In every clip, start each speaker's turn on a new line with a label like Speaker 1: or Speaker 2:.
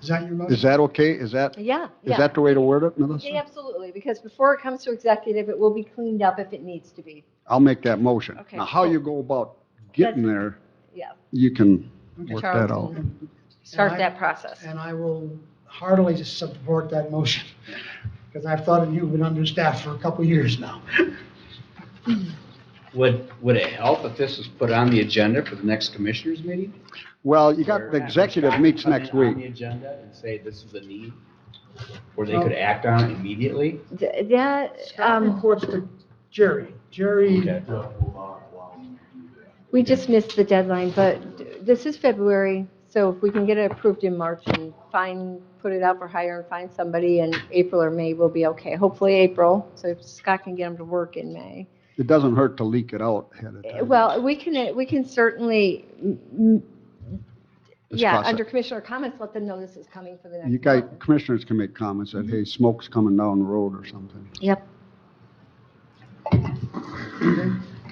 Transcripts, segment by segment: Speaker 1: Is that your motion?
Speaker 2: Is that okay? Is that,
Speaker 3: Yeah,
Speaker 2: is
Speaker 3: yeah.
Speaker 2: that the way to word it,
Speaker 3: Yeah,
Speaker 2: Melissa?
Speaker 3: absolutely, because before it comes to executive, it will be cleaned up if it needs to be.
Speaker 2: I'll make that motion.
Speaker 3: Okay,
Speaker 2: Now, how you go about getting there,
Speaker 3: Yeah,
Speaker 2: you can work
Speaker 3: Charles
Speaker 2: that out.
Speaker 3: can start that process.
Speaker 1: And I will heartily support that motion, because I've thought of you been understaffed for a couple of years now.
Speaker 4: Would, would it help if this was put on the agenda for the next commissioners meeting?
Speaker 2: Well, you got, the
Speaker 4: Where-
Speaker 2: executive meets
Speaker 4: Put it
Speaker 2: next
Speaker 4: On the
Speaker 2: week.
Speaker 4: agenda and say this is a need, or they could act on it immediately?
Speaker 3: D- Yeah,
Speaker 1: Scott
Speaker 3: um,
Speaker 1: reports to Jerry. Jerry,
Speaker 4: Okay.
Speaker 3: we just missed the deadline, but this is February, so if we can get it approved in March and find, put it out for hire and find somebody in April or May, we'll be okay. Hopefully April, so if Scott can get them to work in May.
Speaker 2: It doesn't hurt to leak it out ahead of time.
Speaker 3: Well, we can, we can certainly, mm, mm,
Speaker 2: Let's
Speaker 3: yeah,
Speaker 2: cross it.
Speaker 3: under commissioner comments, let them know this is coming for the next.
Speaker 2: You guys,
Speaker 3: month.
Speaker 2: commissioners can make comments that, hey, smoke's coming down the road or something.
Speaker 3: Yep.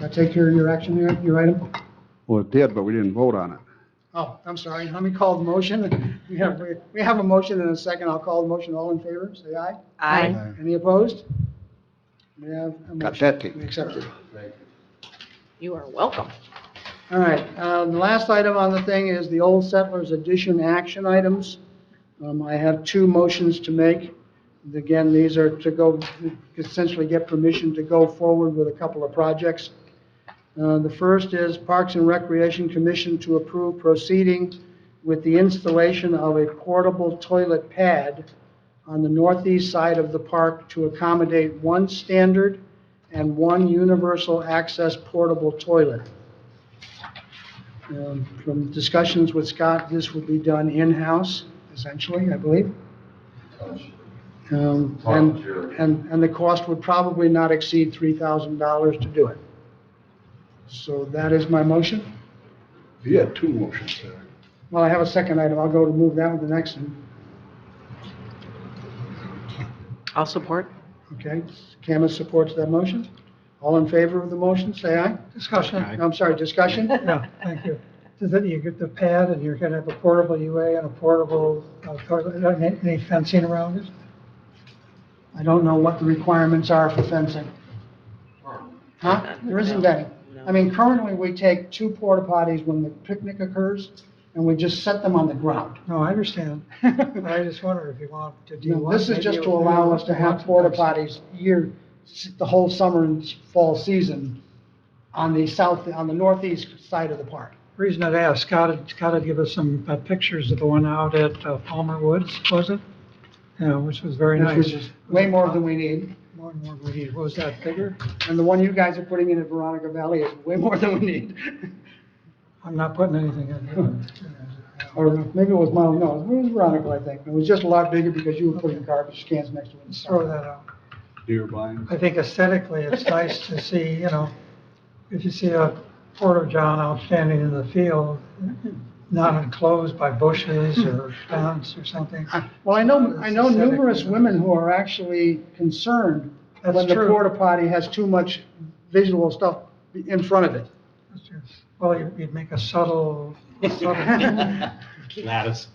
Speaker 1: I take care of your action, your your item?
Speaker 2: Well, it did, but we didn't vote on it.
Speaker 1: Oh, I'm sorry, let me call the motion. We have, we have a motion and a second, I'll call the motion, all in favor, say aye.
Speaker 3: Aye.
Speaker 2: Aye.
Speaker 1: Any opposed? We have a
Speaker 2: Got
Speaker 1: motion
Speaker 2: that taken.
Speaker 1: accepted.
Speaker 5: You are welcome.
Speaker 1: All right, uh, the last item on the thing is the Old Settlers Edition action items. Um, I have two motions to make. Again, these are to go, essentially get permission to go forward with a couple of projects. Uh, The first is Parks and Recreation Commission to approve proceeding with the installation of a portable toilet pad on the northeast side of the park to accommodate one standard and one universal access portable toilet. Um, From discussions with Scott, this would be done in-house, essentially, I believe. Um, And, and, and the cost would probably not exceed $3,000 to do it. So that is my motion.
Speaker 6: You had two motions there.
Speaker 1: Well, I have a second item, I'll go to move that with the next one.
Speaker 5: I'll support.
Speaker 1: Okay, Camus supports that motion. All in favor of the motion, say aye.
Speaker 7: Discussion.
Speaker 4: Aye.
Speaker 1: I'm sorry, discussion?
Speaker 7: Yeah, thank you. So then you get the pad and you're gonna have a portable UA and a portable uh, toilet, uh, any- any fencing around it?
Speaker 1: I don't know what the requirements are for fencing. Huh? There isn't any. I mean, currently, we take two porta potties when the picnic occurs, and we just set them on the ground.
Speaker 7: No, I understand. I just wonder if you want to, do you
Speaker 1: No,
Speaker 7: want?
Speaker 1: This is
Speaker 7: maybe
Speaker 1: just to
Speaker 7: you-
Speaker 1: allow us to have
Speaker 7: want
Speaker 1: porta
Speaker 7: fencing.
Speaker 1: potties year, the whole summer and fall season on the south, on the northeast side of the park.
Speaker 7: Reason I'd ask, Scott had, Scott had given us some uh, pictures of the one out at uh, Palmer Woods, was it? Yeah, which was very
Speaker 1: Which
Speaker 7: nice. Uh,
Speaker 1: is way more than we need,
Speaker 7: More and more, we need- what was that, bigger?
Speaker 1: and the one you guys are putting in at Veronica Valley is way more than we need.
Speaker 7: I'm not putting anything in.
Speaker 1: Or maybe it was Mount, no, it was Veronica, I think. It was just a lot bigger because you were putting garbage cans next to it. and
Speaker 7: Just
Speaker 1: stuff.
Speaker 7: throw that out.
Speaker 2: Deer blind.
Speaker 7: I think aesthetically, it's nice to see, you know, if you see a porta john out standing in the field, not enclosed by bushes or fence or something.
Speaker 1: Well, I know, I know
Speaker 7: Aesthetic.
Speaker 1: numerous women who are actually concerned
Speaker 7: That's
Speaker 1: when the
Speaker 7: true.
Speaker 1: porta potty has too much visual stuff in front of it.
Speaker 7: Well, you- you'd make a subtle, subtle,
Speaker 4: Not as,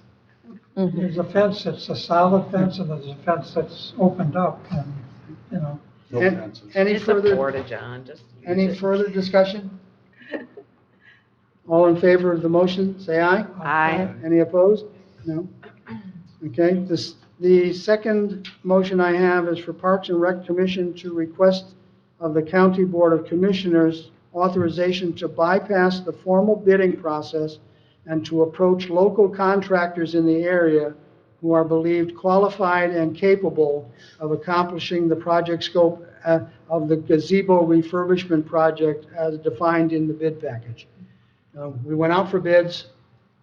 Speaker 3: Mm-hmm.
Speaker 7: there's a fence that's a solid fence and there's a fence that's opened up and, you know,
Speaker 2: No
Speaker 1: And-
Speaker 2: fences.
Speaker 1: Any
Speaker 5: It's a
Speaker 1: further,
Speaker 5: porta john, just. use
Speaker 1: any
Speaker 5: it.
Speaker 1: further discussion? All in favor of the motion, say aye.
Speaker 5: Aye.
Speaker 1: Any opposed? No? Okay, this, the second motion I have is for Parks and Rec Commission to request of the County Board of Commissioners authorization to bypass the formal bidding process and to approach local contractors in the area who are believed qualified and capable of accomplishing the project scope uh, of the gazebo refurbishment project as defined in the bid package. Uh, We went out for bids,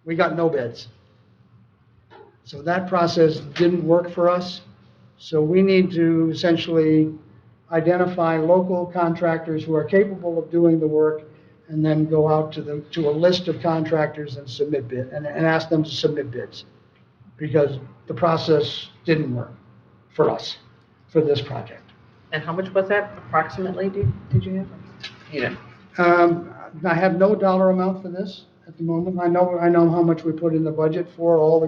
Speaker 1: we got no bids. So that process didn't work for us, so we need to essentially identify local contractors who are capable of doing the work and then go out to the, to a list of contractors and submit bid, and, and ask them to submit bids. Because the process didn't work for us, for this project.
Speaker 5: And how much was that approximately, did, did you have? You know,
Speaker 1: Um, I have no dollar amount for this at the moment. I know, I know how much we put in the budget for all the